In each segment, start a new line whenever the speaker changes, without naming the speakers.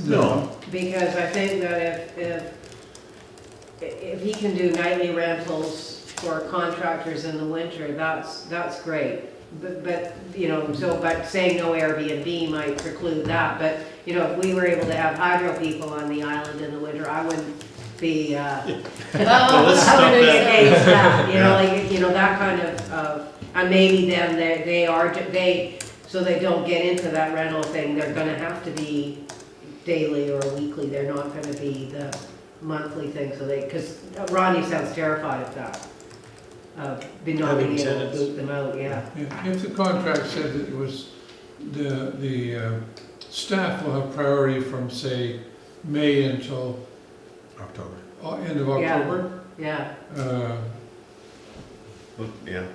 No.
Because I think that if, if, if he can do nightly rentals for contractors in the winter, that's, that's great. But, but, you know, so, but saying no Airbnb might preclude that, but, you know, if we were able to have hydro people on the island in the winter, I wouldn't be, uh, I wouldn't
stop that.
engage that, you know,
Yeah.
like, you know, that kind of, uh, and maybe then they, they are, they, so they don't get into that rental thing, they're gonna have to be daily or weekly, they're not gonna be the monthly thing, so they, because Ronnie sounds terrified of that. Of be not
Having
being able to
tenants.
boot them out, yeah.
If if the contract said that it was, the, the uh, staff will have priority from, say, May until
October.
uh, end of
Yeah.
October,
Yeah,
uh,
Yeah,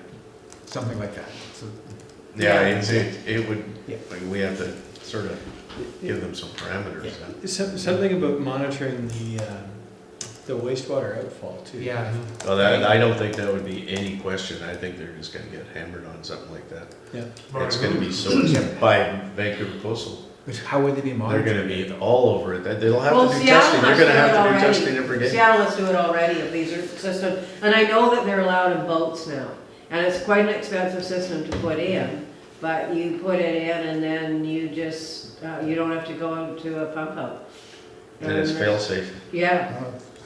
Something like that. So-
Yeah.
yeah, it's, it, it would,
Yeah.
like, we have to sort of give them some parameters. huh?
Some- Something about monitoring the, um, the wastewater outfall too.
Yeah.
Well, that, I don't think that would be any question, I think they're just gonna get hammered on something like that.
Yeah.
It's gonna be so, by Vancouver Coastal,
But how would they be
they're
monitored?
gonna be all over it, They- they'll have
Well,
to do
Seattle
testing, they're
must
gonna
do it
have to do
already.
testing every day.
Seattle is doing already of these are systems, and I know that they're allowed in boats now. And it's quite an expensive system to put in, but you put it in and then you just, uh, you don't have to go to a pump out.
And it's fail-safe.
Yeah,
Yeah.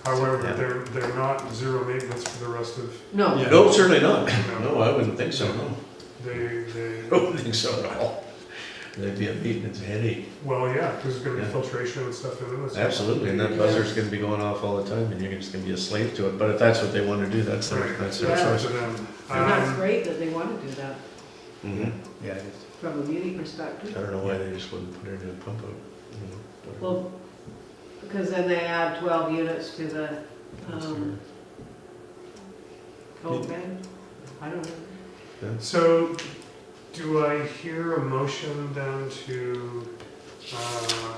However, they're, they're not zero maintenance for the rest of,
no,
Yeah.
No, certainly not,
No.
no, I wouldn't think so, no,
they, they,
I don't think so at all. That'd be a maintenance headache,
well, yeah, there's gonna be
Yeah.
filtration and stuff in this.
absolutely, and that buzzer's gonna be going off all the time, and you're just gonna be a slave to it, but if that's what they wanna do, that's their,
Right,
that's
that's
their
Yeah.
up to
choice.
them.
and that's
Um,
great that they want to do that
Mhm.
Yeah, it is.
from a beauty
I
perspective.
don't know why they just wouldn't put it in a pump out. you know, whatever.
Well, because then they add twelve units to the, um, cold bed, I don't know.
So, do I hear a motion then to, um,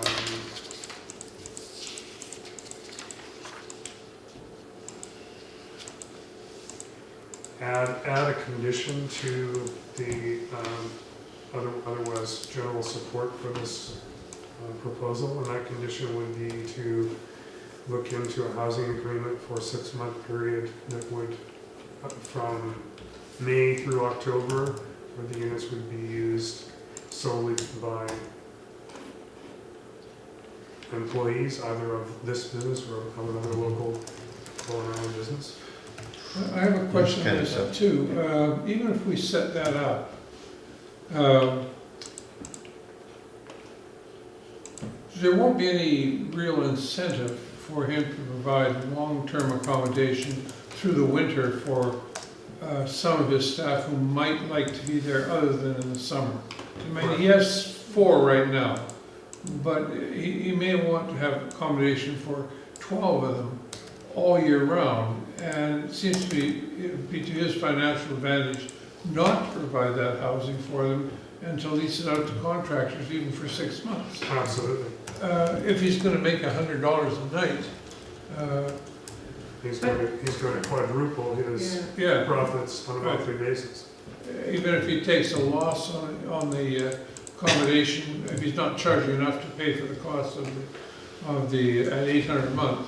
add, add a condition to the, um, other, otherwise general support for this uh, proposal? And that condition would be to look into a housing agreement for a six-month period that would, uh, from May through October, where the units would be used solely by employees, either of this business or of another local Golden Island business.
I I have a question
Kind
on
of
that
stuff.
too. Um, Even if we set that up, um, there won't be any real incentive for him to provide long-term accommodation through the winter for uh, some of his staff who might like to be there other than in the summer. I mean, he has four right now, but he, he may want to have accommodation for 12 of them all year round. And it seems to be, it would be to his financial advantage not to provide that housing for them and to lease it out to contractors even for six months.
Absolutely.
Uh, If he's gonna make $100 a night, uh,
He's going to, he's going to quadruple his
yeah,
profits on a monthly basis.
even if he takes a loss on, on the uh, accommodation, if he's not charging enough to pay for the cost of the, of the, at eight hundred a month,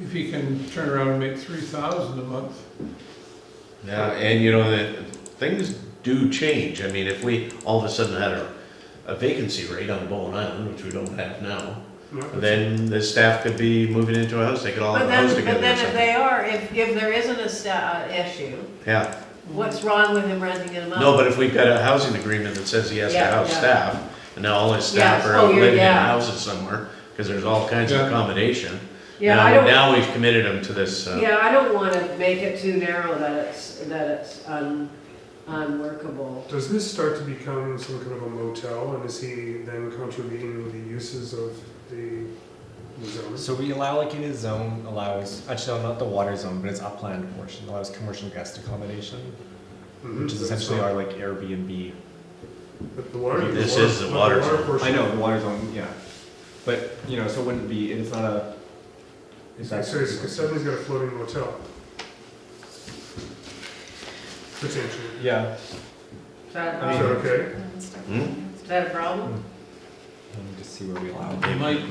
if he can turn around and make three thousand a month,
Yeah, and you know, that, things do change, I mean, if we all of a sudden had a, a vacancy rate on Bowen Island, which we don't have now,
No,
then the staff could be moving into a house, they could all
But
have a house
then, but
together or
then if
something.
they are, if, if there isn't a sta- uh, issue,
Yeah,
what's wrong with him renting it out?
no, but if we've got a housing agreement that says he has to
Yeah,
house
yeah.
staff, and now all his staff
Yes,
are
oh,
out
you're-
living in
yeah.
houses somewhere, cause there's all kinds of
Yeah.
accommodation.
Yeah,
Now-
I don't,
Now we've committed them to this, uh,
yeah, I don't wanna make it too narrow that it's, that it's un, unworkable.
Does this start to become some kind of a motel, and is he then contributing the uses of the the zone?
So we allow, like, in a zone allows, actually, no, not the water zone, but it's upland portion, allows commercial guest accommodation,
Mhm.
which is essentially our, like, Airbnb.
But the water- the
This is the water zone.
portion-
I know, the water zone, yeah. But, you know, so it wouldn't be, it's not a. it's
So
not-
it's- it's somebody's got a floating motel. Potentially.
Yeah,
Is that, a
Is that
problem?
okay?
hmm?
is that a problem?
Let me just see where we allow. it.
They
Might-